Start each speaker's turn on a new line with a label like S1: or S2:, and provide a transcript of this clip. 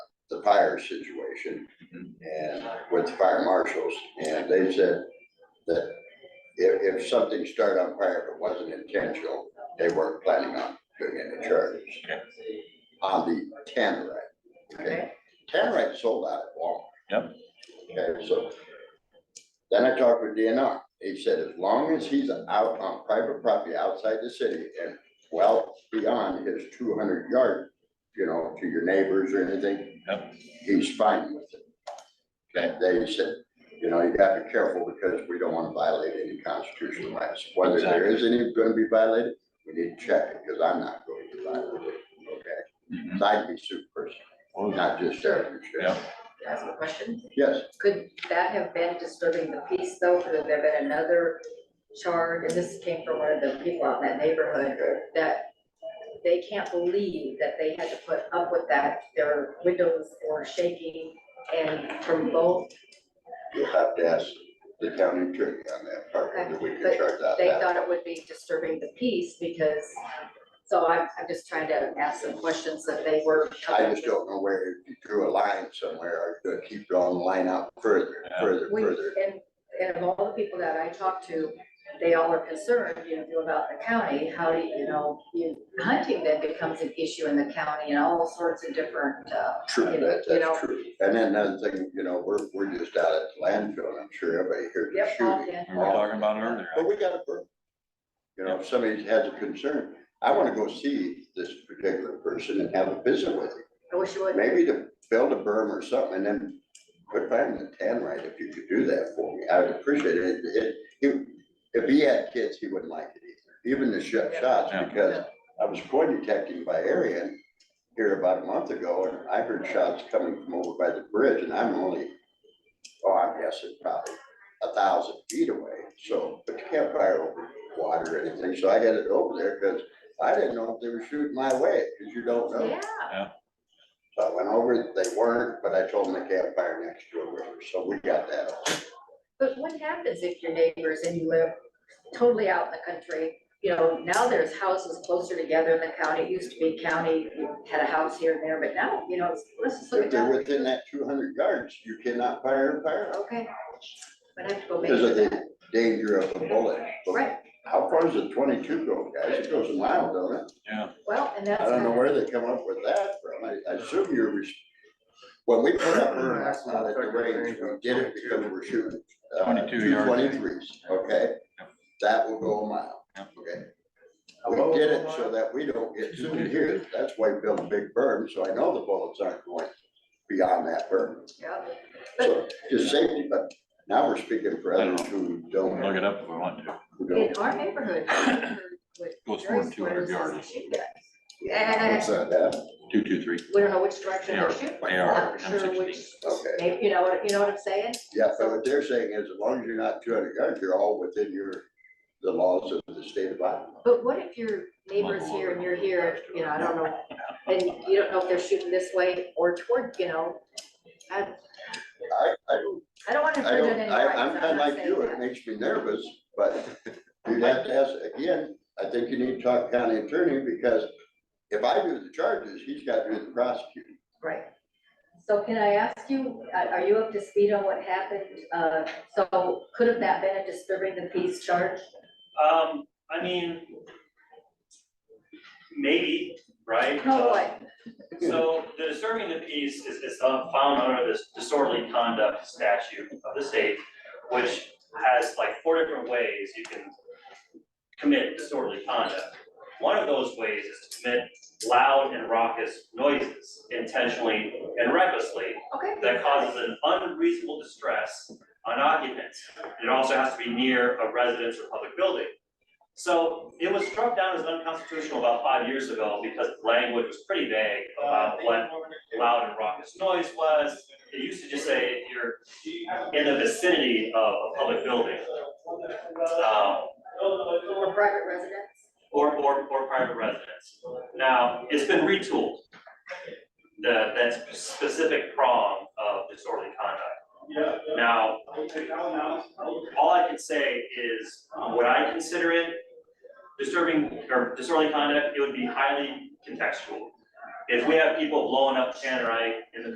S1: the fire situation and with the fire marshals, and they said that if, if something started on fire but wasn't intentional, they weren't planning on doing any charges.
S2: Okay.
S1: On Uh, the Tannerite, okay?
S3: Okay.
S1: Tannerite sold out at Walmart.
S2: Yep.
S1: Okay, so then I talked with DNR. He said as long as he's out on private property outside the city and well beyond his two hundred yard, you know, to your neighbors or anything,
S2: Yep.
S1: he's fine with it. Okay, they said, you know, you gotta be careful because we don't wanna violate any constitutional rights. Whether there is any gonna be violated, we need to check it, cause I'm not going to violate it, okay?
S2: Mhm.
S1: So I'd be sued personally, not just Sheriff.
S2: Yep.
S3: Ask a question.
S1: Yes.
S3: Could that have been disturbing the peace though? Could there have been another charge? And this came from one of the people out in that neighborhood that they can't believe that they had to put up with that. Their windows were shaking and from both,
S1: You'll have to ask the county attorney on that part, whether we can
S3: Okay,
S1: charge out
S3: they
S1: that.
S3: thought it would be disturbing the peace because, so I'm, I'm just trying to ask some questions that they were.
S1: I just don't know where, if you drew a line somewhere, or you're gonna keep drawing the line out further,
S2: Yeah.
S1: further,
S3: We,
S1: further.
S3: and, and of all the people that I talk to, they all are concerned, you know, about the county, how do you, you know, you, hunting then becomes an issue in the county and all sorts of different, uh,
S1: True,
S3: you
S1: that,
S3: know.
S1: that's true. And then another thing, you know, we're, we're just out at the landfill, and I'm sure everybody heard the
S3: yep, all
S1: shooting.
S3: in.
S2: We were talking about it earlier.
S1: But we got a burn. You know, if somebody has a concern, I wanna go see this particular person and have a visit with him.
S3: I wish you would.
S1: Maybe to build a berm or something, and then put back the tan right, if you could do that for me, I would appreciate it. It- it- If he had kids, he wouldn't like it either, even the shot shots,
S2: Yeah.
S1: because I was coin detecting by area and here about a month ago, and I heard shots coming from over by the bridge, and I'm only, oh, I'm guessing probably a thousand feet away, so, but you can't fire over water or anything, so I had it over there, because I didn't know if they were shooting my way, because you don't know.
S3: Yeah,
S1: So I went over, they weren't, but I told them they can't fire next to a river, so we got that.
S3: but what happens if your neighbors and you live totally out in the country? You know, now there's houses closer together in the county, it used to be county, you had a house here and there, but now, you know, it's, let's just look
S1: If
S3: at
S1: they're
S3: that.
S1: within that two hundred yards, you cannot fire a fire
S3: Okay, but I have to go make
S1: because
S3: sure
S1: of
S3: that,
S1: the danger of a bullet. But
S3: right,
S1: How far does a twenty-two go, guys? It goes a mile, don't it?
S3: well, and that's.
S1: I don't know
S3: kinda-
S1: where they come up with that from. I, I assume you're, res- when we put up our last lot at the range, we did it because we're shooting. uh,
S2: 22
S1: two
S2: yards.
S1: 23s, okay? That will go a mile,
S2: Yep.
S1: okay? We did it so that we don't get sued here. That's why we built a big berm, so I know the bullets aren't going beyond that berm.
S3: Yeah.
S1: So just safety, but now we're speaking for others who
S2: We can Look
S1: don't,
S2: it up if we want to.
S1: who
S3: In
S1: don't.
S3: our neighborhood. what
S2: Goes
S3: Jerry
S2: more than two hundred
S3: Squares is
S2: yards.
S3: a shoot at. And
S1: Yeah,
S2: Two, two, three.
S3: we don't know which direction
S2: AR,
S3: they're shooting.
S2: AR,
S3: Not sure
S2: M16.
S3: which,
S1: Okay.
S3: maybe, you know, what- you know what I'm saying?
S1: Yeah, but what they're saying is as long as you're not two hundred yards, you're all within your, the laws of the state of Iowa.
S3: But what if your neighbor's here and you're here, you know, I don't know, and you don't know if they're shooting this way or toward, you know?
S1: I,
S3: I,
S1: I don't,
S3: I don't want to
S1: I
S3: infringe on
S1: don't,
S3: any
S1: I,
S3: rights.
S1: I'm
S3: not
S1: kind of like
S3: saying
S1: you.
S3: that.
S1: It makes me nervous, but you'd have to ask, again, I think you need to talk to county attorney because if I do the charges, he's got to do the prosecuting.
S3: Right. So can I ask you, are are you up to speed on what happened? Uh, So could have that been a disturbing the peace charge?
S4: Um, I mean, maybe, right?
S3: No way.
S4: So the disturbing the peace is, is uh, found under this disorderly conduct statute of the state, which has like four different ways you can commit disorderly conduct. One of those ways is to commit loud and raucous noises intentionally and recklessly
S3: Okay.
S4: that causes an unreasonable distress on occupants. It also has to be near a residence or public building. So it was struck down as unconstitutional about five years ago because the language was pretty vague about what loud and raucous noise was. It used to just say if you're in the vicinity of a public building. Um,
S3: Or private residence?
S4: or, or, or private residence. Now, it's been retooled. The, that specific prong of disorderly conduct. Now, all I can say is, would I consider it disturbing or disorderly conduct? It would be highly contextual. If we have people blowing up Tannerite